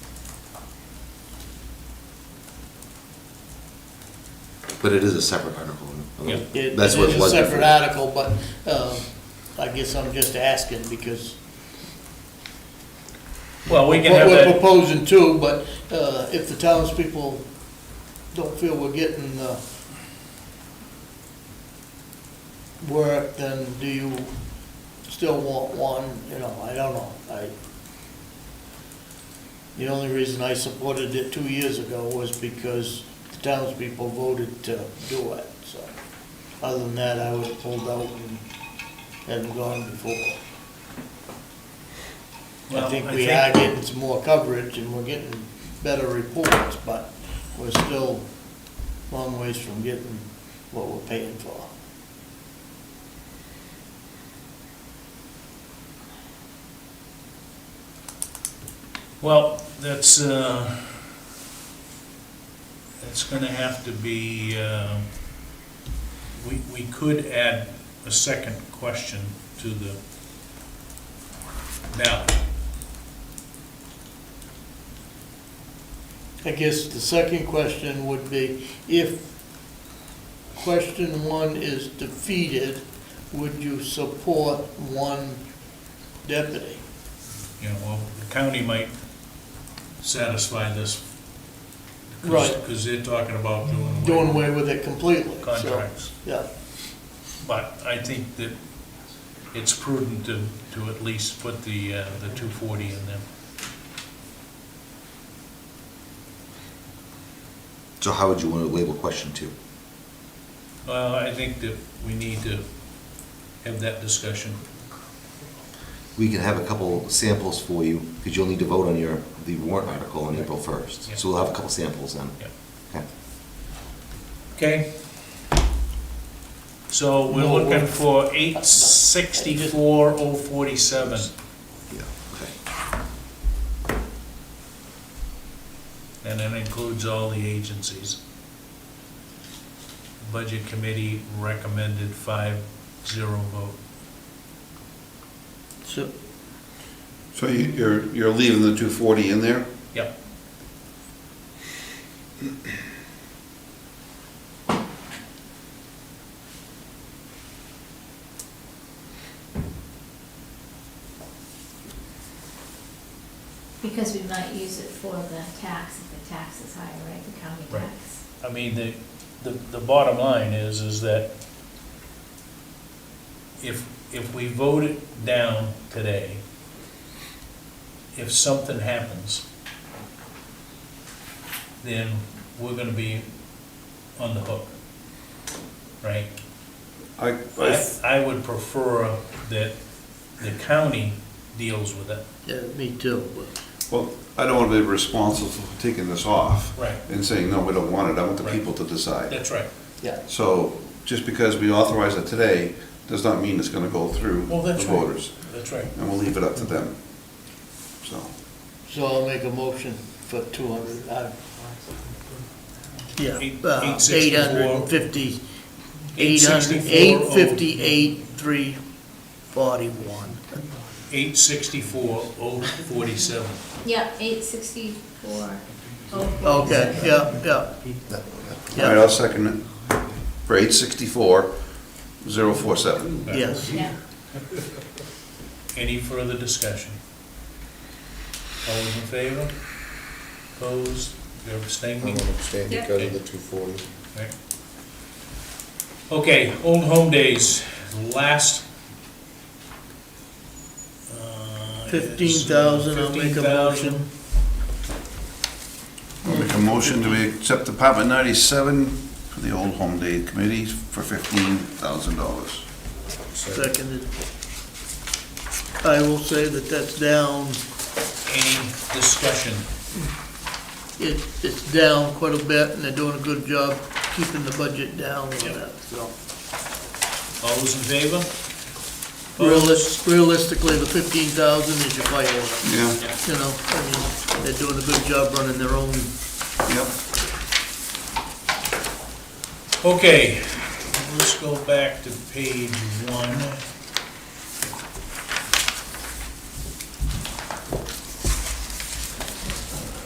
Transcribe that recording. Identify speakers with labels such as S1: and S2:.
S1: But it is a separate article. I mean,
S2: Yeah.
S3: It
S1: That's what
S3: it
S1: it
S3: is a
S1: was
S3: separate
S1: before.
S3: article, but um, I guess I'm just asking because
S2: Well, we can
S3: what
S2: have
S3: we're
S2: that,
S3: proposing too, but uh, if the townspeople don't feel we're getting uh, the work, then do you still want one? You know, I don't know. I, the only reason I supported it two years ago was because the townspeople voted to do it, so. Other than that, I would have pulled out and hadn't gone before.
S2: Well,
S3: I think
S2: I
S3: we are
S2: think-
S3: getting some more coverage and we're getting better reports, but we're still long ways from getting what we're paying for.
S2: well, that's, uh, that's gonna have to be, uh, we, we could add a second question to the ballot.
S3: I guess the second question would be, if question one is defeated, would you support one deputy?
S2: You know, well, the county might satisfy this.
S3: Right.
S2: Because they're talking about doing away.
S3: Doing
S2: with
S3: away with it completely, so.
S2: Contracts.
S3: Yeah,
S2: But I think that it's prudent to, to at least put the, uh, the two forty in there.
S1: So how would you want to label question two?
S2: Well, I think that we need to have that discussion.
S1: We can have a couple samples for you, because you'll need to vote on your, the warrant article on April first.
S2: Yeah.
S1: So we'll have a couple samples then.
S2: Yeah.
S1: Okay.
S2: Okay? So we're
S3: No,
S2: looking
S3: we're-
S2: for eight sixty-four oh forty-seven.
S1: Yeah, okay.
S2: And that includes all the agencies. Budget Committee recommended five zero vote.
S3: so,
S4: So you- you're, you're leaving the 240 in there?
S2: Yep.
S5: Because we might use it for the tax, if the tax is higher, right, the county
S2: Right.
S5: tax.
S2: I mean, the, the, the bottom line is, is that if, if we vote it down today, if something happens, then we're gonna be on the hook, right?
S4: I,
S2: I, I would prefer that the county deals with it.
S3: yeah, me too, but,
S4: well, I don't want to be responsible for taking this off
S2: Right.
S4: and saying, no, we don't want it, I want the
S2: Right.
S4: people to decide.
S2: That's right.
S3: yeah.
S4: So just because we authorize it today, does not mean it's going to go through
S2: Well,
S4: the
S2: that's right.
S4: voters.
S2: That's right.
S4: And we'll leave it up to them. So,
S3: So I'll make a motion for two hundred, uh, yeah,
S2: Eight-
S3: uh, eight
S2: 864.
S3: hundred and fifty, eight hundred,
S2: 864.
S3: eight fifty-eight, three forty-one.
S2: Eight sixty-four oh forty-seven.
S5: Yeah, eight sixty-four, oh,
S3: Okay, yeah, yeah.
S4: all right,
S3: Yeah,
S4: I'll second it. For 864, 047.
S3: yes,
S5: yeah.
S2: Any further discussion? All those in favor? Opposed? You're abstaining?
S6: abstain
S5: Yeah.
S6: because of the two forty.
S2: Right. Okay, Old Home Days, last. uh, is, uh,
S3: fifteen thousand, I'll make a
S2: 15,000.
S3: motion.
S4: I'll make a motion, do we accept Department 97 for the Old Home Day Committee for $15,000?
S3: Seconded. I will say that that's down,
S2: Any discussion?
S3: it, it's down quite a bit, and they're doing a good job keeping the budget down with that, so.
S2: All those in favor? Opposed?
S3: Realis- Realistically, the fifteen thousand is your fireworks,
S4: Yeah,
S3: you know, I mean, they're doing a good job running their own.
S4: yep.
S2: Okay, let's go back to page one.